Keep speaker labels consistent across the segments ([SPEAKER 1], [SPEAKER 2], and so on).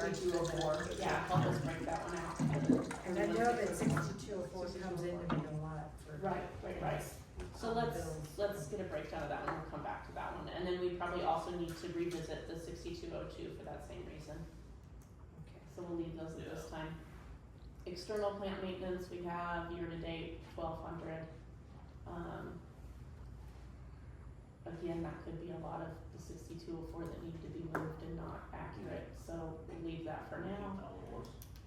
[SPEAKER 1] sixty-two oh four, yeah, help us break that one out.
[SPEAKER 2] And I know that sixty-two oh four comes in to be a lot for.
[SPEAKER 1] Right, right, right. So let's, let's get a breakdown of that one, we'll come back to that one, and then we probably also need to revisit the sixty-two oh two for that same reason.
[SPEAKER 2] Okay.
[SPEAKER 1] So we'll leave those at this time. External plant maintenance, we have year-to-date twelve hundred. Um. Again, that could be a lot of the sixty-two oh four that need to be moved and not accurate, so we'll leave that for now.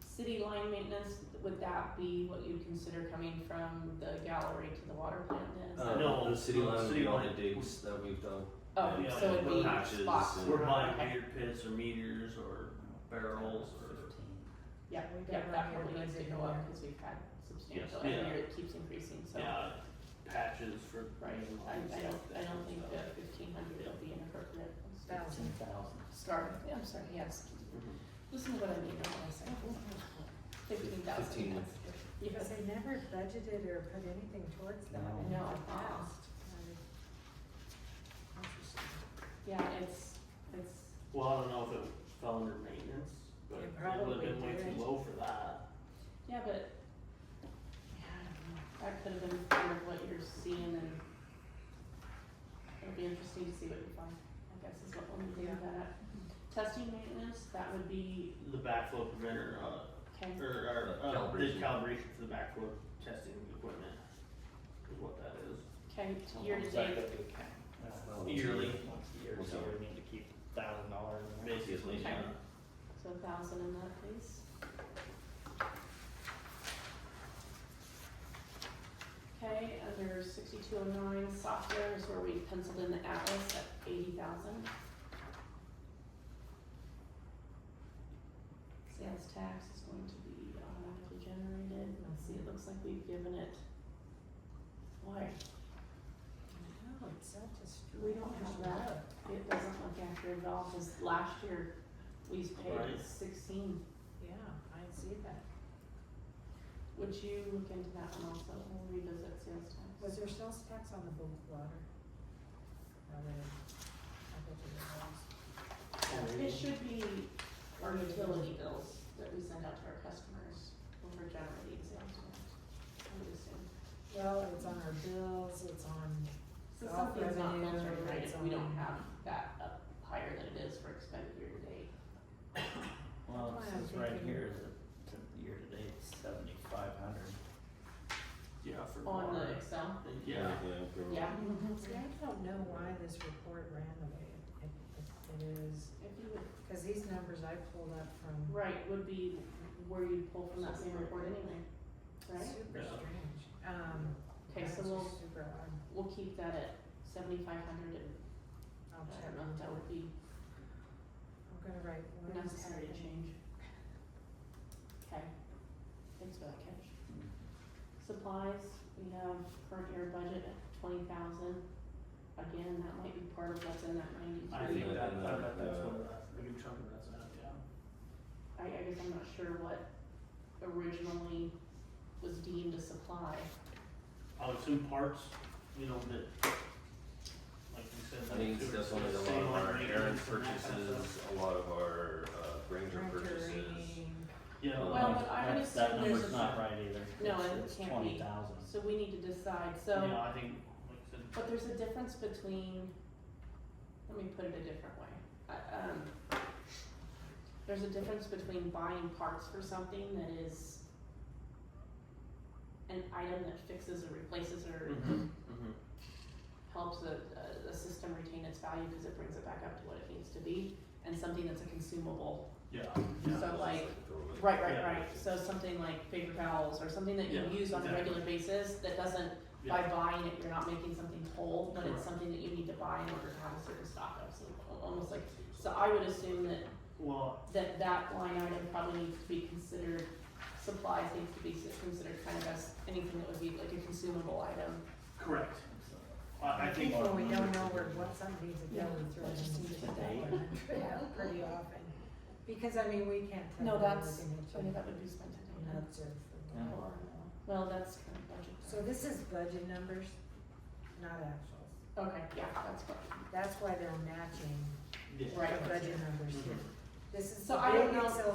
[SPEAKER 1] City line maintenance, would that be what you'd consider coming from the gallery to the water plant then? Is that-
[SPEAKER 3] Uh,
[SPEAKER 4] No,
[SPEAKER 3] the city
[SPEAKER 4] the
[SPEAKER 3] line,
[SPEAKER 4] city
[SPEAKER 3] we all the
[SPEAKER 4] line.
[SPEAKER 3] digs that we've done.
[SPEAKER 1] Oh,
[SPEAKER 4] yeah,
[SPEAKER 1] so it'd be
[SPEAKER 4] we're
[SPEAKER 3] patches
[SPEAKER 1] spots.
[SPEAKER 3] and-
[SPEAKER 4] We're buying
[SPEAKER 1] Okay.
[SPEAKER 4] beer pits or meters or barrels or.
[SPEAKER 1] Yeah,
[SPEAKER 2] We
[SPEAKER 1] yeah,
[SPEAKER 2] got
[SPEAKER 1] that
[SPEAKER 2] one
[SPEAKER 1] probably
[SPEAKER 2] here,
[SPEAKER 1] needs to
[SPEAKER 2] one
[SPEAKER 1] go
[SPEAKER 2] there.
[SPEAKER 1] up, cause we've had substantial,
[SPEAKER 4] Yes.
[SPEAKER 1] and
[SPEAKER 4] Yeah.
[SPEAKER 1] it keeps increasing, so.
[SPEAKER 4] Yeah, patches for.
[SPEAKER 1] Right, I, I don't, I don't think that fifteen hundred will be inappropriate. Let's do-
[SPEAKER 2] Thousand.
[SPEAKER 1] Start, yeah, I'm sorry, yes, listen to what I mean, not what I say. Fifteen thousand.
[SPEAKER 3] Fifteen.
[SPEAKER 2] Because they never budgeted or put anything towards that in the
[SPEAKER 1] No.
[SPEAKER 2] past. I-
[SPEAKER 1] Yeah, it's, it's,
[SPEAKER 4] Well, I don't know if it fell under maintenance, but
[SPEAKER 2] It
[SPEAKER 4] it would have been way
[SPEAKER 2] probably did.
[SPEAKER 4] too low for that.
[SPEAKER 1] yeah, but, yeah, I don't know, that could have been part of what you're seeing and it'll be interesting to see what you find, I guess is what we'll leave
[SPEAKER 2] Yeah.
[SPEAKER 1] that at. Testing maintenance, that would be,
[SPEAKER 4] The backflow preventer, uh,
[SPEAKER 1] okay,
[SPEAKER 4] or, or, uh, the
[SPEAKER 3] Calibration.
[SPEAKER 4] calibration for the backflow testing equipment is what that is.
[SPEAKER 1] okay, year to
[SPEAKER 5] Back
[SPEAKER 1] date,
[SPEAKER 5] up to account.
[SPEAKER 3] Well,
[SPEAKER 4] Yearly.
[SPEAKER 5] Once a year, so we need to keep thousand dollars in there.
[SPEAKER 4] Basically,
[SPEAKER 1] Okay.
[SPEAKER 4] yeah.
[SPEAKER 1] so a thousand in that, please. Okay, under sixty-two oh nine, software is where we penciled in the Atlas at eighty thousand. Sales tax is going to be automatically generated, let's see, it looks like we've given it. Why,
[SPEAKER 2] No, it's so destroyed.
[SPEAKER 1] We don't have that. it doesn't look accurate at all, cause last year we paid
[SPEAKER 4] Right.
[SPEAKER 1] sixteen,
[SPEAKER 2] Yeah, I see that.
[SPEAKER 1] would you look into that one also, we'll revisit sales tax?
[SPEAKER 2] Was there sales tax on the bulk water? I would have- I bet you there was.
[SPEAKER 1] It should be our utility bills that we send out to our customers when we're generating sales tax, I would assume.
[SPEAKER 2] Well, it's on our bills, it's on,
[SPEAKER 1] So
[SPEAKER 2] Well,
[SPEAKER 1] something's not
[SPEAKER 2] revenue,
[SPEAKER 1] measured right if we don't
[SPEAKER 2] it's on-
[SPEAKER 1] have that up higher than it is for expended year to date.
[SPEAKER 5] Well, it
[SPEAKER 2] That's why I'm
[SPEAKER 5] says right
[SPEAKER 2] thinking-
[SPEAKER 5] here, is it, year to date, seventy-five hundred.
[SPEAKER 4] Yeah, for
[SPEAKER 1] On the
[SPEAKER 4] water.
[SPEAKER 1] Excel,
[SPEAKER 4] Yeah.
[SPEAKER 3] Yeah.
[SPEAKER 1] yeah,
[SPEAKER 2] see, I don't know why this report ran the way it, it- it is.
[SPEAKER 1] if you would,
[SPEAKER 2] Cause these numbers I pulled up from
[SPEAKER 1] right, would be where you'd pull from that same report anyway, right?
[SPEAKER 2] super
[SPEAKER 4] Yeah.
[SPEAKER 2] strange, um.
[SPEAKER 1] Okay,
[SPEAKER 2] that's
[SPEAKER 1] so we'll,
[SPEAKER 2] just Super odd,
[SPEAKER 1] we'll keep that at seventy-five hundred and,
[SPEAKER 2] I'll
[SPEAKER 1] I
[SPEAKER 2] check,
[SPEAKER 1] don't know if that would be
[SPEAKER 2] I'm gonna write one second.
[SPEAKER 1] necessary to change. Okay, thanks for that catch. Supplies, we have current year budget at twenty thousand. Again, that might be part of what's in that
[SPEAKER 4] I
[SPEAKER 1] ninety-three.
[SPEAKER 4] think
[SPEAKER 3] Yeah,
[SPEAKER 4] that,
[SPEAKER 3] and
[SPEAKER 4] I
[SPEAKER 3] then,
[SPEAKER 4] bet that's
[SPEAKER 3] uh,
[SPEAKER 4] what that, a good chunk of that's at, yeah.
[SPEAKER 1] I, I guess I'm not sure what originally was deemed a supply.
[SPEAKER 4] I would assume parts, you know, that, like you said,
[SPEAKER 3] I
[SPEAKER 4] like.
[SPEAKER 3] think it's
[SPEAKER 4] sewer-
[SPEAKER 3] definitely a lot
[SPEAKER 4] same
[SPEAKER 3] of
[SPEAKER 4] like
[SPEAKER 3] our errant
[SPEAKER 4] maintenance and that kind of
[SPEAKER 3] purchases,
[SPEAKER 4] stuff.
[SPEAKER 3] a lot of our uh, Granger
[SPEAKER 2] Renter
[SPEAKER 3] purchases.
[SPEAKER 2] rating.
[SPEAKER 4] Yeah,
[SPEAKER 3] Well,
[SPEAKER 1] but
[SPEAKER 4] like-
[SPEAKER 1] I would
[SPEAKER 5] That's- That
[SPEAKER 1] assume there's
[SPEAKER 5] number's
[SPEAKER 1] a-
[SPEAKER 5] not right either.
[SPEAKER 1] No,
[SPEAKER 5] It's-
[SPEAKER 1] it can't be.
[SPEAKER 5] It's twenty thousand.
[SPEAKER 1] So we need to decide, so,
[SPEAKER 4] yeah, I think, like I said,
[SPEAKER 1] but there's a difference between, let me put it a different way. I- um, there's a difference between buying parts for something that is an item that fixes or replaces or
[SPEAKER 4] mhm,
[SPEAKER 3] Mm-hmm.
[SPEAKER 4] Mm-hmm.
[SPEAKER 1] helps a, a, a system retain its value because it brings it back up to what it needs to be, and something that's a consumable.
[SPEAKER 4] yeah, yeah.
[SPEAKER 1] So like,
[SPEAKER 3] Throwaway.
[SPEAKER 1] right, right,
[SPEAKER 4] Yeah.
[SPEAKER 1] right, so something like paper towels or something that you
[SPEAKER 4] Yeah,
[SPEAKER 1] use on a
[SPEAKER 4] exactly.
[SPEAKER 1] regular basis that doesn't, by buying it, you're not making something whole, but it's
[SPEAKER 4] Correct.
[SPEAKER 1] something that you need to buy in order to have a certain stock of, so al- almost like, so I would assume that,
[SPEAKER 4] Well,
[SPEAKER 1] that that line item probably needs to be considered, supplies needs to be s- considered kind of as anything that would be like a consumable item.
[SPEAKER 4] correct. I, I think,
[SPEAKER 2] When we don't know where, what something needs to go,
[SPEAKER 1] Yeah.
[SPEAKER 2] we throw it
[SPEAKER 1] Just
[SPEAKER 2] in
[SPEAKER 1] need to
[SPEAKER 2] that
[SPEAKER 5] date.
[SPEAKER 2] one. Yeah, pretty often, because I mean, we can't tell.
[SPEAKER 1] No,
[SPEAKER 2] when we're
[SPEAKER 1] that's-
[SPEAKER 2] gonna
[SPEAKER 1] So I think that would be spent
[SPEAKER 2] do
[SPEAKER 1] today.
[SPEAKER 2] an observe for
[SPEAKER 5] Yeah.
[SPEAKER 2] that.
[SPEAKER 1] Or, uh, well, that's kind of budget.
[SPEAKER 2] So this is budget numbers, not actuals,
[SPEAKER 1] Okay, yeah, that's budget.
[SPEAKER 2] that's why they're matching the
[SPEAKER 4] yeah.
[SPEAKER 1] Right.
[SPEAKER 2] budget numbers here. This is the
[SPEAKER 1] So I don't
[SPEAKER 2] big
[SPEAKER 1] know-
[SPEAKER 2] Excel